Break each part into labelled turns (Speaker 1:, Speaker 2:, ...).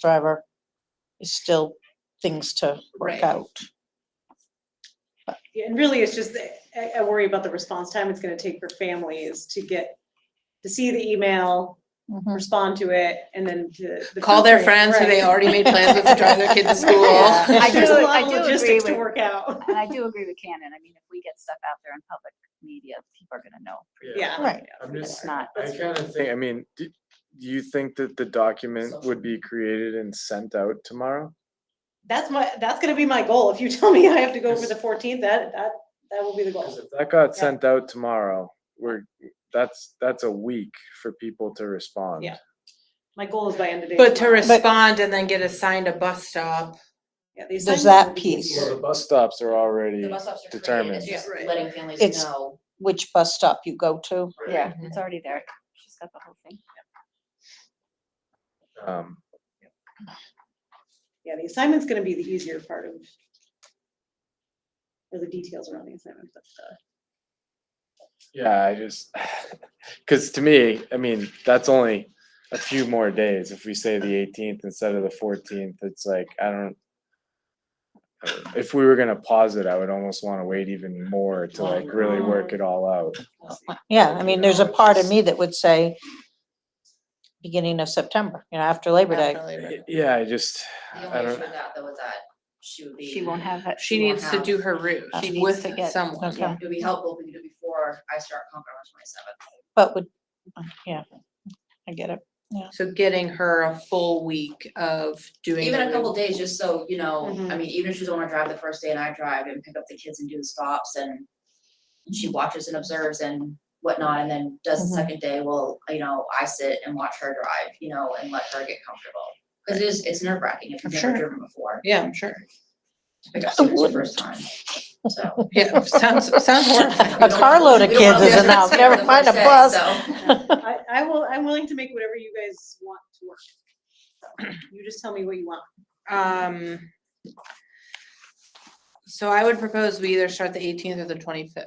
Speaker 1: driver is still things to work
Speaker 2: Right.
Speaker 1: out.
Speaker 2: Yeah, and really, it's just, that I, I worry about the response time it's gonna take for families to get, to see the email,
Speaker 3: Mm-hmm.
Speaker 1: Mhm.
Speaker 2: respond to it, and then to. the
Speaker 4: Call their
Speaker 2: filtering,
Speaker 4: friends who they
Speaker 2: right.
Speaker 4: already made plans with to drive their kid to school.
Speaker 3: Yeah. I
Speaker 2: There's
Speaker 3: do-
Speaker 2: a
Speaker 3: I
Speaker 2: lot of
Speaker 3: do agree
Speaker 2: logistics to
Speaker 3: with-
Speaker 2: work out,
Speaker 3: And I do agree with Canon. I mean, if we get stuff out there in public media, people are gonna know.
Speaker 2: yeah.
Speaker 1: Right.
Speaker 2: yeah,
Speaker 5: I'm
Speaker 2: for
Speaker 5: just-
Speaker 3: It's
Speaker 2: sure.
Speaker 3: not,
Speaker 5: I kind of think, I mean, do, do you think that the document would be created and sent out tomorrow?
Speaker 2: That's my, that's gonna be my goal, if you tell me I have to go for the fourteenth, that, that, that will be the goal.
Speaker 5: Because if that got
Speaker 2: Yeah.
Speaker 5: sent out tomorrow, we're, that's, that's a week for people to respond.
Speaker 2: Yeah. My goal is by end of day.
Speaker 4: But to
Speaker 2: tomorrow.
Speaker 4: respond and then get assigned a bus stop.
Speaker 2: Yeah, the
Speaker 1: There's
Speaker 2: assignments
Speaker 1: that
Speaker 2: will be
Speaker 1: piece.
Speaker 2: easier.
Speaker 5: Well, the bus stops are already,
Speaker 6: The bus stops are created,
Speaker 5: determined.
Speaker 6: it's just
Speaker 2: Yeah, right.
Speaker 6: letting families
Speaker 1: It's-
Speaker 6: know.
Speaker 1: Which bus stop you go to.
Speaker 3: yeah, it's already there. She's got the whole thing.
Speaker 5: um,
Speaker 2: Yeah, the assignment's gonna be the easier part of. Or the details around the assignment, but, uh,
Speaker 5: yeah, I just, because to me, I mean, that's only a few more days. If we say the eighteenth instead of the fourteenth, it's like, I don't. If we were gonna pause it, I would almost want to wait even more to like really work it all out.
Speaker 2: we'll see.
Speaker 1: Yeah, I mean, there's a
Speaker 5: Yeah,
Speaker 1: part of
Speaker 5: it's-
Speaker 1: me that would say beginning of September, you know, after Labor Day.
Speaker 5: Y- Yeah, I just,
Speaker 6: The
Speaker 5: I
Speaker 6: only
Speaker 5: don't-
Speaker 6: issue with that though is that she would be.
Speaker 3: She won't have that.
Speaker 4: She
Speaker 6: She won't
Speaker 4: needs to do her route
Speaker 1: She
Speaker 3: needs
Speaker 4: with
Speaker 3: to get-
Speaker 4: someone.
Speaker 1: Okay.
Speaker 6: It would be helpful if we could do it before I start Concord on twenty seventh.
Speaker 1: But would, yeah, I get it.
Speaker 4: So getting her a full week of doing.
Speaker 6: Even
Speaker 4: the
Speaker 6: a couple
Speaker 4: route.
Speaker 6: days, just so, you know, I
Speaker 1: Mm-hmm.
Speaker 2: Mhm.
Speaker 6: mean, even if she doesn't wanna drive the first day and I drive and pick up the kids and do the stops and she watches and observes and whatnot, and then does the
Speaker 1: Mhm.
Speaker 6: second day, well, you know, I sit and watch her drive, you know, and let her get comfortable. Cause it is, it's nerve wracking if
Speaker 1: I'm
Speaker 6: you've never
Speaker 1: sure. Oh,
Speaker 6: driven before,
Speaker 4: Yeah, I'm sure.
Speaker 6: to pick up
Speaker 1: I
Speaker 6: students the
Speaker 1: wouldn't.
Speaker 6: first time, so.
Speaker 4: Yeah, sounds, sounds horrible.
Speaker 6: We
Speaker 1: A
Speaker 6: don't-
Speaker 1: carload of
Speaker 6: we don't
Speaker 1: kids
Speaker 6: have
Speaker 1: is
Speaker 6: the
Speaker 1: enough,
Speaker 6: space
Speaker 1: never
Speaker 6: for the
Speaker 1: mind a
Speaker 6: first day,
Speaker 1: bus.
Speaker 6: so.
Speaker 2: I, I will, I'm willing to make whatever you guys want to work. So, You just tell me what you want.
Speaker 4: Um. So I would propose we either start the eighteenth or the twenty-fifth.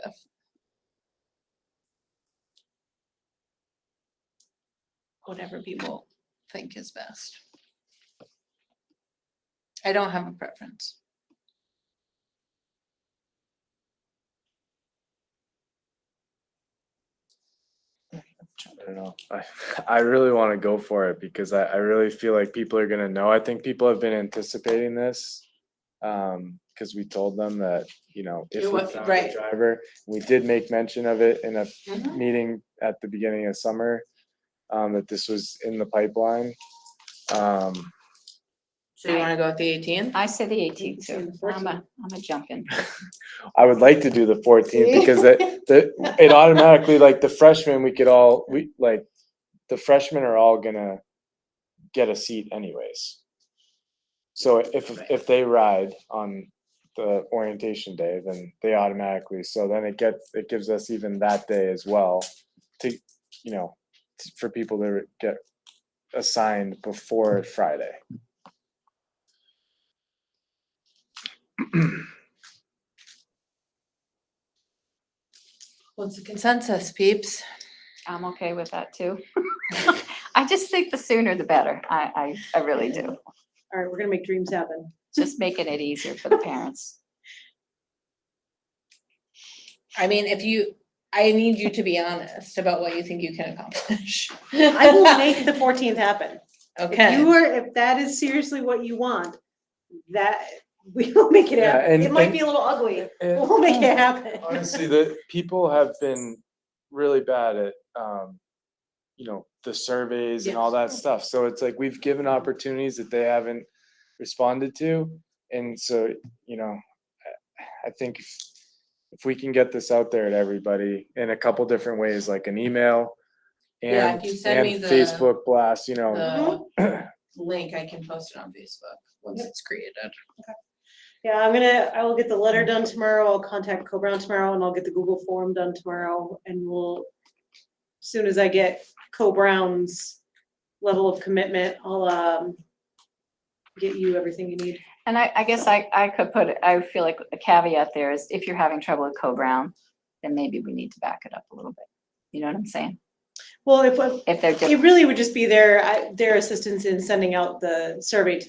Speaker 4: Whatever people think is best. I don't have a preference.
Speaker 5: I don't know. I, I really want to go for it because I, I really feel like people are gonna know. I think people have been anticipating this. Um, cause we told them that, you know, if
Speaker 4: It
Speaker 5: we
Speaker 4: was-
Speaker 5: found
Speaker 4: right.
Speaker 5: a driver, we did make mention of it in a
Speaker 4: Mhm.
Speaker 5: meeting at the beginning of summer. Um, that this was in the pipeline. Um,
Speaker 4: So you wanna go with the eighteenth?
Speaker 3: I say the eighteenth
Speaker 2: Say
Speaker 3: too.
Speaker 2: the
Speaker 3: I'm a, I'm a jumping.
Speaker 5: I would like to do the fourteenth because that, that, it automatically, like the freshmen, we could all, we, like, the freshmen are all gonna get a seat anyways. So if, if they ride on the orientation day, then they automatically, so then it gets, it gives us even that day as well to, you know, t- for people to get assigned before Friday.
Speaker 4: What's the consensus, peeps?
Speaker 3: I'm okay with that too. I just think the sooner the better. I, I, I really do.
Speaker 2: All right, we're gonna make dreams happen.
Speaker 3: Just making it easier for the parents.
Speaker 4: I mean, if you, I need you to be honest about what you think you can accomplish.
Speaker 2: I will make the fourteenth happen. If
Speaker 4: Okay,
Speaker 2: you are, if that is seriously what you want, that, we will make it
Speaker 5: Yeah,
Speaker 2: happen.
Speaker 5: and-
Speaker 2: It might
Speaker 5: and-
Speaker 2: be a little ugly, but we'll make it happen.
Speaker 5: honestly, the people have been really bad at, um, you know, the surveys and all that stuff. So it's like we've given opportunities that they haven't responded to. And so, you know, I- I think if, if we can get this out there to everybody in a couple different ways, like an email
Speaker 4: Yeah,
Speaker 5: and,
Speaker 4: if you send me
Speaker 5: and
Speaker 4: the-
Speaker 5: Facebook blast, you know,
Speaker 4: the link, I can post it on Facebook once it's created.
Speaker 2: Yeah, I'm gonna, I will get the letter done tomorrow. I'll contact Co-Brown tomorrow and I'll get the Google form done tomorrow and we'll, as soon as I get Co-Brown's level of commitment, I'll, um, get you everything you need.
Speaker 3: And I, I guess I, I could put, it- I feel like a caveat there is if you're having trouble with Co-Brown, then maybe we need to back it up a little bit. You know what I'm saying?
Speaker 2: Well, if,
Speaker 3: if they're different.
Speaker 2: it really would just be their, I- their assistance in sending out the survey to